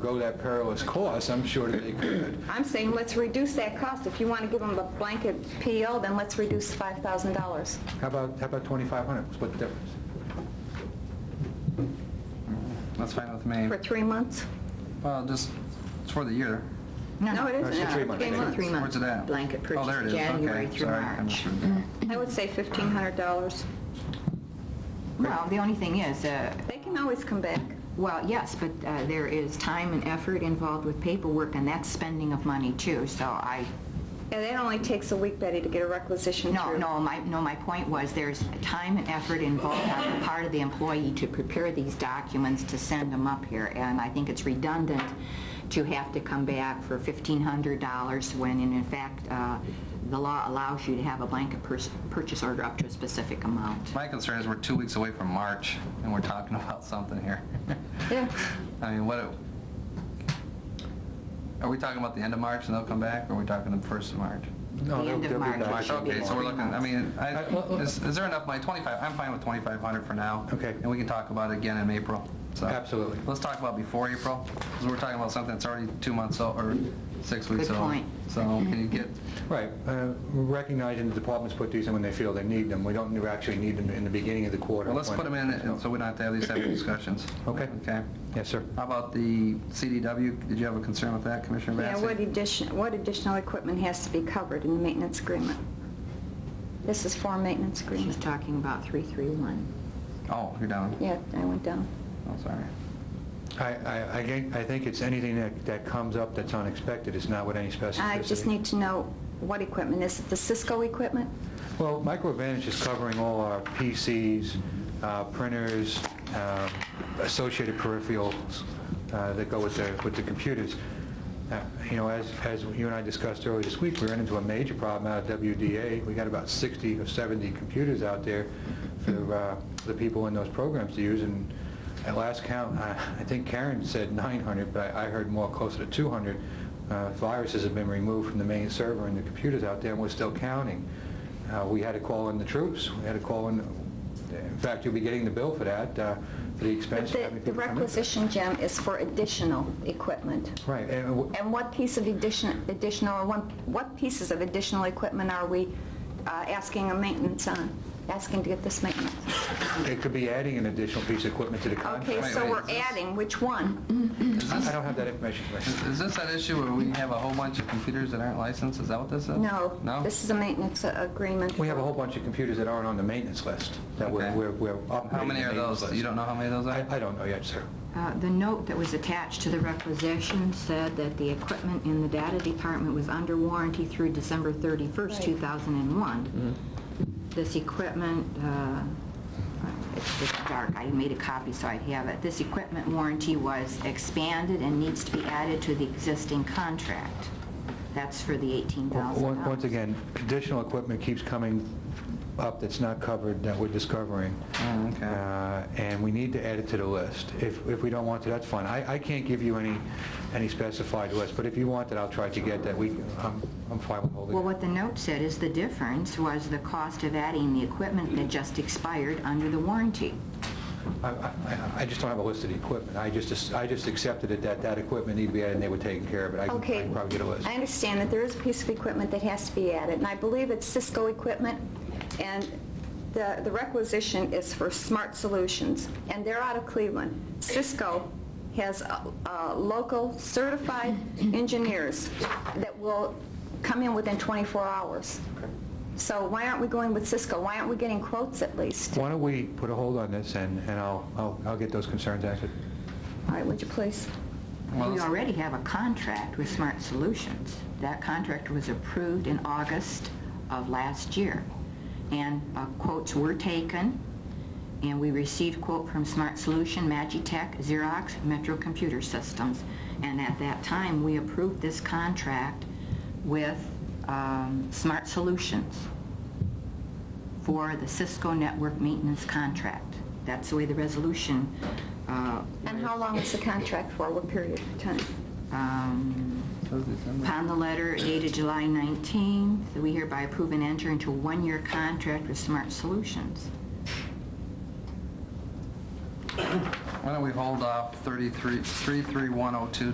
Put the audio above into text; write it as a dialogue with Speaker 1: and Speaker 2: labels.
Speaker 1: go that perilous course, I'm sure that they could.
Speaker 2: I'm saying let's reduce that cost. If you want to give them a blanket PO, then let's reduce $5,000.
Speaker 1: How about, how about 2,500? Split the difference.
Speaker 3: That's fine with me.
Speaker 2: For three months?
Speaker 3: Well, just, it's for the year.
Speaker 2: No, it
Speaker 1: it's
Speaker 2: isn't.
Speaker 1: a three month
Speaker 2: Three
Speaker 1: thing.
Speaker 2: months.
Speaker 4: Three months.
Speaker 3: Where's it at?
Speaker 4: Blanket
Speaker 3: Oh, there it
Speaker 4: purchase,
Speaker 3: is.
Speaker 4: January
Speaker 3: Okay.
Speaker 4: through
Speaker 3: Sorry, I
Speaker 4: March.
Speaker 3: misread that.
Speaker 2: I would say $1,500.
Speaker 4: Well, the only thing is, uh,
Speaker 2: They can always come back.
Speaker 4: well, yes, but uh, there is time and effort involved with paperwork, and that's spending of money too, so I,
Speaker 2: And that only takes a week, Betty, to get a requisition
Speaker 4: no,
Speaker 2: through.
Speaker 4: no, my, no, my point was, there's time and effort involved on the part of the employee to prepare these documents, to send them up here, and I think it's redundant to have to come back for $1,500 when, in fact, uh, the law allows you to have a blanket pers- purchase order up to a specific amount.
Speaker 3: My concern is we're two weeks away from March, and we're talking about something here.
Speaker 2: Yeah.
Speaker 3: I mean, what, are we talking about the end of March and they'll come back, or are we talking the first of March?
Speaker 1: No,
Speaker 4: The
Speaker 1: they'll-
Speaker 4: end
Speaker 1: they'll
Speaker 4: of
Speaker 1: be
Speaker 4: March.
Speaker 1: back.
Speaker 4: It should be
Speaker 3: Okay, so we're
Speaker 4: three
Speaker 3: looking, I
Speaker 4: months.
Speaker 3: mean, I,
Speaker 1: Uh, well, uh,
Speaker 3: is is there enough money? 25, I'm fine with 2,500 for now.
Speaker 1: Okay.
Speaker 3: And we can talk about it again in April. So
Speaker 1: Absolutely.
Speaker 3: Let's talk about before April, because we're talking about something that's already two months old, or six weeks
Speaker 4: Good
Speaker 3: old.
Speaker 4: point.
Speaker 3: So can you get,
Speaker 1: Right, uh, recognizing the departments put these in when they feel they need them. We don't actually need them in the beginning of the quarter.
Speaker 3: well, let's
Speaker 1: when-
Speaker 3: put them in, and so we don't have to have these separate discussions.
Speaker 1: Okay.
Speaker 3: Okay.
Speaker 1: Yes, sir.
Speaker 3: How about the CDW? Did you have a concern with that, Commissioner
Speaker 2: Yeah,
Speaker 3: Vacy?
Speaker 2: what addition, what additional equipment has to be covered in the maintenance agreement? This is for a maintenance
Speaker 4: She's
Speaker 2: agreement.
Speaker 4: talking about 331.
Speaker 3: Oh, you're down.
Speaker 2: Yeah, I went down.
Speaker 3: Oh, sorry.
Speaker 1: I, I, I think- I think it's anything that, that comes up that's unexpected, it's not with any specificity.
Speaker 2: I just need to know what equipment. Is it the Cisco equipment?
Speaker 1: Well, MicroAdvantage is covering all our PCs, uh, printers, uh, associated peripherals uh, that go with the, with the computers. Uh, You know, as, as you and I discussed earlier this week, we ran into a major problem out of WDA. We got about 60 or 70 computers out there for uh, the people in those programs to use, and at last count, I I think Karen said 900, but I I heard more closer to 200 uh, viruses have been removed from the main server and the computers out there, and we're still counting. Uh, We had to call in the troops, we had to call in, in fact, you'll be getting the bill for that, uh, for the
Speaker 2: But
Speaker 1: expense of
Speaker 2: the
Speaker 1: having
Speaker 2: the
Speaker 1: people come in.
Speaker 2: requisition, Jim, is for additional equipment.
Speaker 1: Right, and w-
Speaker 2: And what piece of addition, additional, or one- what pieces of additional equipment are we uh, asking a maintenance on? Asking to get this maintenance?
Speaker 1: it could be adding an additional piece of equipment to the
Speaker 2: Okay,
Speaker 1: contract.
Speaker 3: Wait,
Speaker 2: so
Speaker 3: wait,
Speaker 2: we're
Speaker 3: is this-
Speaker 2: adding, which one?
Speaker 3: Is
Speaker 1: I
Speaker 3: this,
Speaker 1: don't have that information, Commissioner.
Speaker 3: is- is this that issue where we have a whole bunch of computers that aren't licensed? Is that what this is?
Speaker 2: No.
Speaker 3: No?
Speaker 2: This is a maintenance uh, agreement.
Speaker 1: We have a whole bunch of computers that aren't on the maintenance list, that we're
Speaker 3: Okay.
Speaker 1: we're we're upgrading.
Speaker 3: How many
Speaker 1: the
Speaker 3: are
Speaker 1: maintenance
Speaker 3: those? You
Speaker 1: list.
Speaker 3: don't know how many of those are?
Speaker 1: I I don't know yet, sir.
Speaker 4: Uh, The note that was attached to the requisition said that the equipment in the data department was under warranty through December 31st,
Speaker 2: Right.
Speaker 4: 2001.
Speaker 1: Mm-hmm.
Speaker 4: This equipment, uh, it's just dark, I made a copy so I'd have it. This equipment warranty was expanded and needs to be added to the existing contract. That's for the $18,000.
Speaker 1: Once once again, additional equipment keeps coming up that's not covered, that we're discovering.
Speaker 3: Oh, okay.
Speaker 1: Uh, And we need to add it to the list. If if we don't want to, that's fine. I I can't give you any any specified list, but if you want it, I'll try to get that. We, I'm I'm fine with holding
Speaker 4: Well,
Speaker 1: it.
Speaker 4: what the note said is the difference was the cost of adding the equipment that just expired under the warranty.
Speaker 1: I- I I- I just don't have a list of the equipment. I just I just accepted it that that equipment needed to be added, and they were taking care of it. I can I
Speaker 2: Okay.
Speaker 1: can probably get a list.
Speaker 2: I understand that there is a piece of equipment that has to be added, and I believe it's Cisco equipment, and the the requisition is for Smart Solutions, and they're out of Cleveland. Cisco has uh, uh, local certified engineers that will come in within 24 hours. So why aren't we going with Cisco? Why aren't we getting quotes at least? All
Speaker 1: Why don't we put a hold on this, and and I'll I'll I'll get those concerns answered.
Speaker 2: right, would you please?
Speaker 3: Well,
Speaker 4: We
Speaker 3: it's-
Speaker 4: already have a contract with Smart Solutions. That contract was approved in August of last year, and uh, quotes were taken, and we received quote from Smart Solution, Magitech, Xerox, Metro Computer Systems, and at that time, we approved this contract with um, Smart Solutions for the Cisco Network Maintenance Contract. That's the way the resolution uh,
Speaker 2: And how long is the contract for? What period of time?
Speaker 4: um, Upon the letter dated July 19th, we hereby approve and enter into a one-year contract with Smart Solutions.
Speaker 3: Why don't we hold off 33, 33102